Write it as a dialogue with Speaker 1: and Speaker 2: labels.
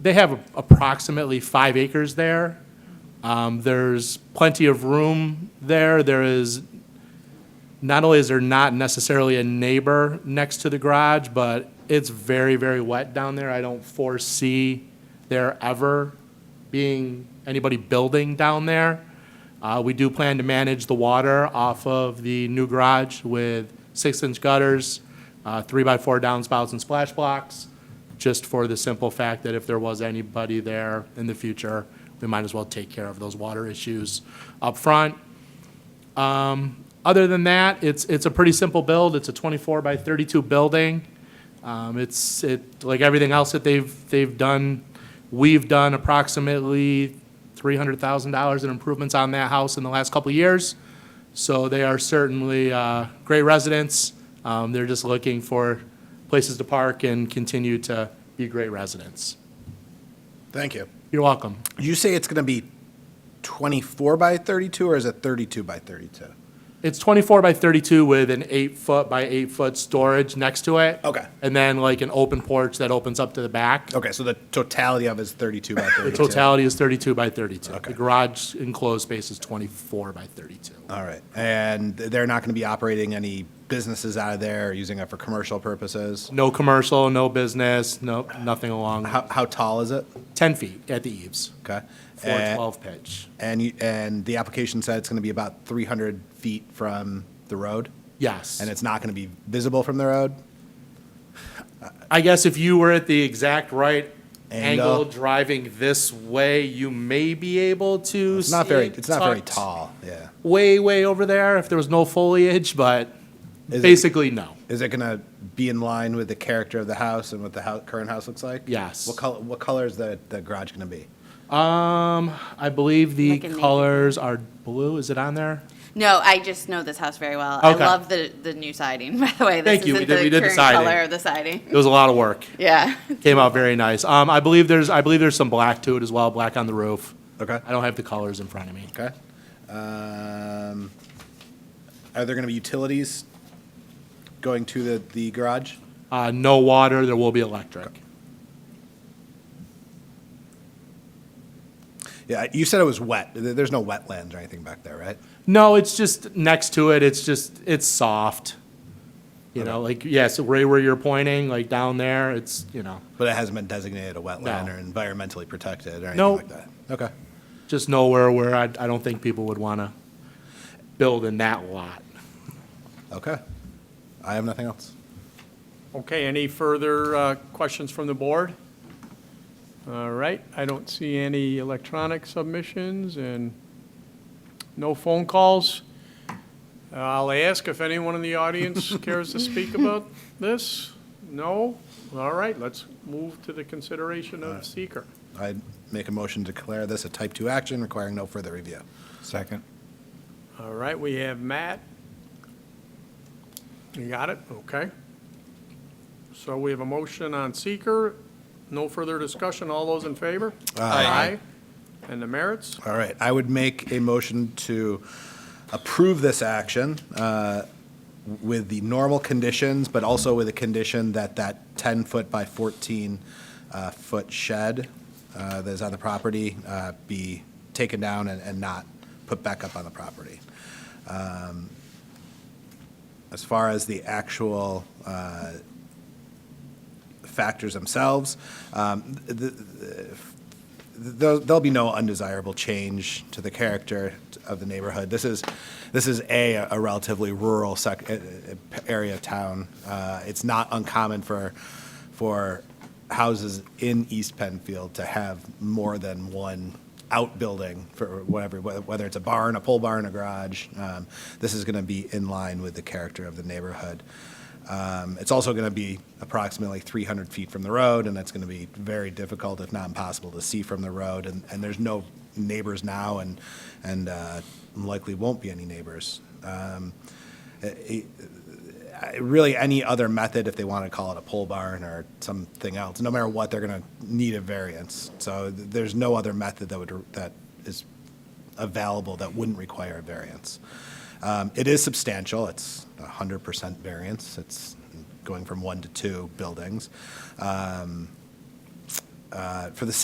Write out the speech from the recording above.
Speaker 1: They have approximately five acres there. Um, There's plenty of room there. There is, not only is there not necessarily a neighbor next to the garage, but it's very, very wet down there. I don't foresee there ever being anybody building down there. Uh, We do plan to manage the water off of the new garage with six-inch gutters, uh, three-by-four downspouts and splash blocks, just for the simple fact that if there was anybody there in the future, we might as well take care of those water issues up front. Um, Other than that, it's, it's a pretty simple build. It's a 24 by 32 building. Um, It's, it, like everything else that they've, they've done, we've done approximately $300,000 in improvements on that house in the last couple of years. So they are certainly uh, great residents. Um, They're just looking for places to park and continue to be great residents.
Speaker 2: Thank you.
Speaker 1: You're welcome.
Speaker 2: Did you say it's going to be 24 by 32, or is it 32 by 32?
Speaker 1: It's 24 by 32 with an eight-foot by eight-foot storage next to it.
Speaker 2: Okay.
Speaker 1: And then like an open porch that opens up to the back.
Speaker 2: Okay, so the totality of it is 32 by 32?
Speaker 1: The totality is 32 by 32. The
Speaker 2: Okay.
Speaker 1: garage enclosed space is 24 by 32.
Speaker 2: All right, and they're not going to be operating any businesses out of there, or using it for commercial purposes?
Speaker 1: No commercial, no business, no, nothing along,
Speaker 2: How, how tall is it?
Speaker 1: 10 feet at the eaves,
Speaker 2: Okay.
Speaker 1: four
Speaker 2: And-
Speaker 1: 12 pitch.
Speaker 2: And, you- and the application said it's going to be about 300 feet from the road?
Speaker 1: Yes.
Speaker 2: And it's not going to be visible from the road?
Speaker 1: I guess if you were at the exact right
Speaker 2: Angle.
Speaker 1: angle driving this way, you may be able to
Speaker 2: It's not
Speaker 1: see
Speaker 2: very,
Speaker 1: it
Speaker 2: it's not very
Speaker 1: tucked
Speaker 2: tall, yeah.
Speaker 1: Way, way over there if there was no foliage, but
Speaker 2: Is it-
Speaker 1: basically, no.
Speaker 2: Is it going to be in line with the character of the house and what the hou- current house looks like?
Speaker 1: Yes.
Speaker 2: What color, what color is the, the garage going to be?
Speaker 1: Um, I believe the
Speaker 3: Like a navy blue.
Speaker 1: colors are blue. Is it on there?
Speaker 3: No, I just know this house very well.
Speaker 1: Okay.
Speaker 3: I love the, the new siding, by the way. This
Speaker 1: Thank you. We
Speaker 3: isn't
Speaker 1: did-
Speaker 3: the
Speaker 1: we did the
Speaker 3: current
Speaker 1: siding.
Speaker 3: color of the siding.
Speaker 1: It was a lot of work.
Speaker 3: Yeah.
Speaker 1: Came out very nice. Um, I believe there's, I believe there's some black to it as well, black on the roof.
Speaker 2: Okay.
Speaker 1: I don't have the colors in front of me.
Speaker 2: Okay. Um, Are there going to be utilities going to the, the garage?
Speaker 1: Uh, no water, there will be electric.
Speaker 2: Yeah, you said it was wet. There- There's no wetlands or anything back there, right?
Speaker 1: No, it's just next to it, it's just, it's soft. You know, like, yes, right where you're pointing, like down there, it's, you know,
Speaker 2: But it hasn't been designated a wetland
Speaker 1: No.
Speaker 2: or environmentally protected or anything
Speaker 1: Nope.
Speaker 2: like that? Okay.
Speaker 1: just nowhere where I, I don't think people would want to build in that lot.
Speaker 2: Okay. I have nothing else.
Speaker 4: Okay, any further uh, questions from the board? All right, I don't see any electronic submissions and no phone calls. Uh, I'll ask if anyone in the audience cares to speak about this? No? All right, let's move to the consideration of seeker.
Speaker 2: I make a motion to declare this a type 2 action requiring no further review.
Speaker 5: Second.
Speaker 4: All right, we have Matt. You got it? Okay. So we have a motion on seeker. No further discussion. All those in favor?
Speaker 2: Aye.
Speaker 4: And the merits?
Speaker 2: All right, I would make a motion to approve this action uh, with the normal conditions, but also with a condition that that 10-foot by 14-foot shed uh, that is on the property uh, be taken down and and not put back up on the property. Um, As far as the actual uh, factors themselves, um, the there'll, there'll be no undesirable change to the character of the neighborhood. This is, this is a, a relatively rural sec, eh, eh, area of town. Uh, it's not uncommon for, for houses in East Penfield to have more than one outbuilding for whatever, wh- whether it's a barn, a pole barn, a garage. Um, this is going to be in line with the character of the neighborhood. Um, It's also going to be approximately 300 feet from the road, and that's going to be very difficult, if not impossible, to see from the road. And, and there's no neighbors now, and, and uh, likely won't be any neighbors. Um, it- it- Really, any other method, if they want to call it a pole barn or something else, no matter what, they're going to need a variance. So th- there's no other method that would, that is available that wouldn't require a variance. Um, It is substantial, it's 100% variance, it's going from one to two buildings. Um, uh, for the